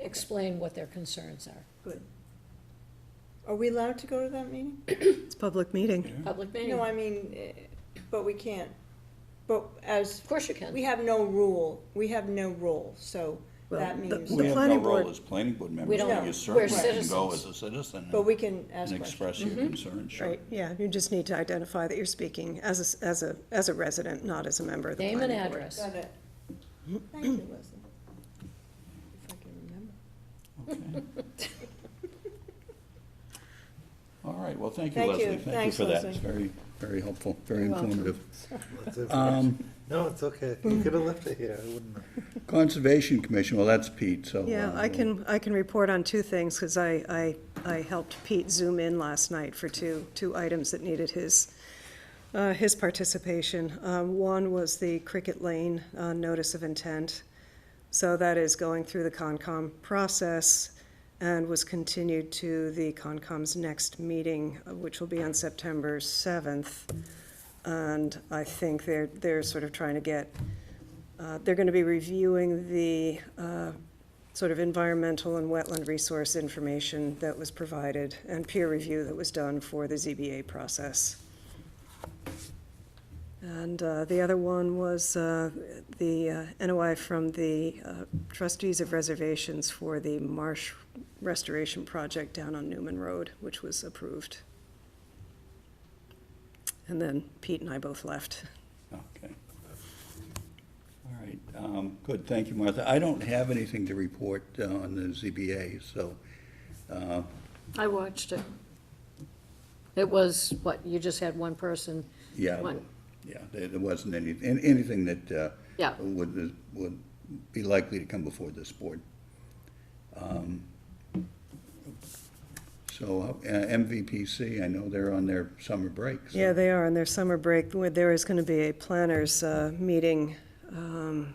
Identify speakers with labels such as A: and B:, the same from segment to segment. A: explain what their concerns are.
B: Good. Are we allowed to go to that meeting?
C: It's public meeting.
A: Public meeting,
B: No,
A: of
B: I mean, eh, but we can't, but as,
A: course you
B: we
A: can.
B: have no rule, we have no rule, so
C: Well,
B: that
C: the-
B: means,
C: the
D: We have no
C: planning board-
D: role as planning board members,
A: don't-
B: No,
D: but
B: we're
D: you certainly can go
A: citizens.
D: as a citizen
B: but
D: and-
B: we can ask
D: and
B: questions.
D: express your concerns, sure.
C: Right, yeah, you just need to identify that you're speaking as a, s- as a, as a resident, not as a member of the
A: Name
C: planning board.
A: and address.
B: Got it. Thank you, Leslie. If I can remember.
D: Okay. All right, well, thank you,
B: Thank you.
D: Leslie. Thank you
B: Thanks,
D: for that.
B: Leslie.
D: It's very, very helpful, very
C: You're welcome.
D: informative.
E: That's it.
D: Um,
E: No, it's okay. You could have left it here. I wouldn't have.
D: Conservation Commission, well, that's Pete, so.
C: Yeah,
D: uh,
C: I can, I can report on two things, because I, I, I helped Pete zoom in last night for two, two items that needed his, uh, his participation. Um, one was the Cricket Lane, uh, notice of intent. So that is going through the Concom process and was continued to the Concom's next meeting, uh, which will be on September seventh. And I think they're, they're sort of trying to get, uh, they're gonna be reviewing the, uh, sort of environmental and wetland resource information that was provided and peer review that was done for the ZBA process. And uh, the other one was uh, the uh, NOI from the uh, trustees of reservations for the marsh restoration project down on Newman Road, which was approved. And then Pete and I both left.
D: Okay. All right, um, good, thank you, Martha. I don't have anything to report uh, on the ZBA, so, uh,
A: I watched it. It was, what, you just had one person?
D: yeah.
A: One.
D: Yeah, there, there wasn't any, an- anything that, uh,
A: Yeah.
D: would, would be likely to come before this board. Um, So uh, MVPC, I know they're on their summer break, so.
C: Yeah, they are, on their summer break, where there is gonna be a planners, uh, meeting, um,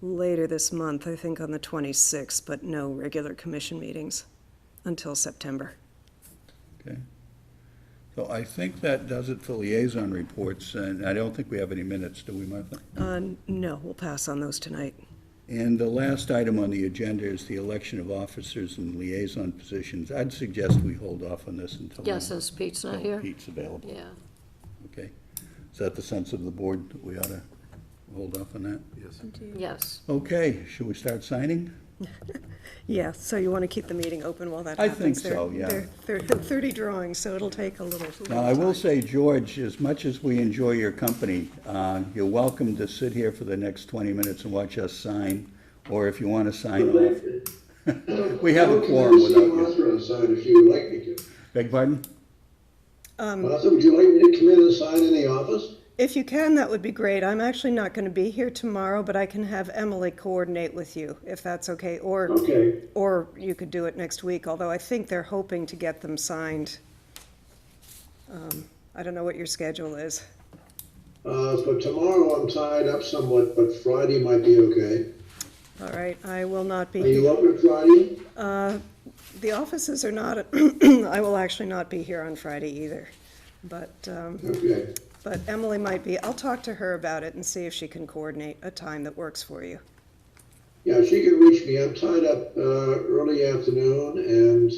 C: later this month, I think on the twenty-sixth, but no regular commission meetings until September.
D: Okay. So I think that does it for liaison reports, and I don't think we have any minutes, do we, Martha?
C: Uh, no, we'll pass on those tonight.
D: And the last item on the agenda is the election of officers and liaison positions. I'd suggest we hold off on this until.
A: Yeah, since Pete's not
D: until
A: here?
D: Pete's available,
A: Yeah.
D: okay? Is that the sense of the board, that we ought to hold off on that?
E: Yes.
A: Yes.
D: Okay, should we start signing?
C: Yeah, so you wanna keep the meeting open while that
D: I
C: happens?
D: think so, yeah.
C: There are thirty drawings, so it'll take a little, little
D: Now, I will
C: time.
D: say, George, as much as we enjoy your company, uh, you're welcome to sit here for the next 20 minutes and watch us sign, or if you want to sign off. We have a quorum
F: I'll
D: without
F: come in
D: you.
F: and see Martha and sign if you would like me to.
D: Beg pardon?
F: Martha, would you like me to come in and sign in the office?
C: If you can, that would be great. I'm actually not gonna be here tomorrow, but I can have Emily coordinate with you, if that's okay, or
F: Okay,
C: Or you could do it next week, although I think they're hoping to get them signed. Um, I don't know what your schedule is.
F: uh, for tomorrow I'm tied up somewhat, but Friday might be okay.
C: All right, I will not
F: Are
C: be,
F: you open Friday?
C: the offices are not, I will actually not be here on Friday either. But, um,
F: Okay,
C: but Emily might be. I'll talk to her about it and see if she can coordinate a time that works for you.
F: yeah, if she can reach me, I'm tied up, uh, early afternoon and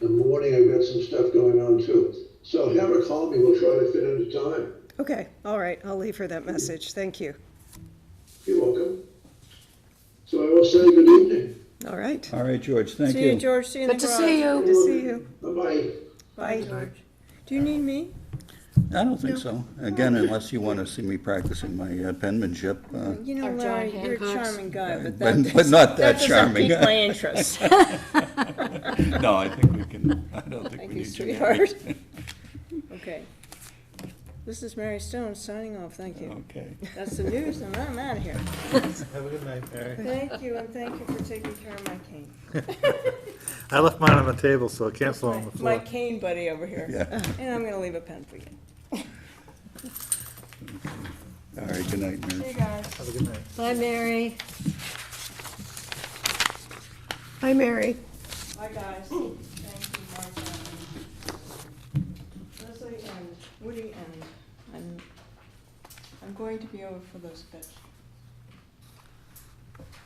F: the morning I've got some stuff going on too. So have her call me, we'll try to fit into time.
C: Okay, all right, I'll leave her that message. Thank you.
F: You're welcome. So I will say good evening.
C: All right,
D: All right, George, thank
B: See you,
D: you.
B: George, see you in the
A: Good to
B: garage.
A: see
C: good
A: you.
C: to see you.
F: Bye-bye.
C: Bye.
B: Do you need me?
D: I don't think so. Again, unless you want to see me practicing my uh, penmanship. uh,
B: You know,
A: Or John
B: Larry, you're a
A: Hancock's.
B: charming guy, but that,
D: But but
B: that
D: not that
B: doesn't
D: charming.
B: pique my interest.
D: No, I think we can, I don't think
B: Thank you,
D: we need you.
B: sweetheart. Okay. This is Mary Stone signing off, thank you.
D: Okay.
B: That's the news, and I'm out of here.
E: Have a good night, Mary.
B: Thank you, and thank you for taking care of my cane.
E: I left mine on the table, so I can't fall on the
B: My
E: floor.
B: cane buddy over here.
D: Yeah.
B: And I'm gonna leave a pen for you.
D: All right, good night, Mary.
B: See you guys.
E: Have a good night.
A: Bye, Mary.
C: Hi, Mary.
B: Bye, guys. Thank you, Martha. Leslie and Woody and I'm, I'm going to be over for those vegetables.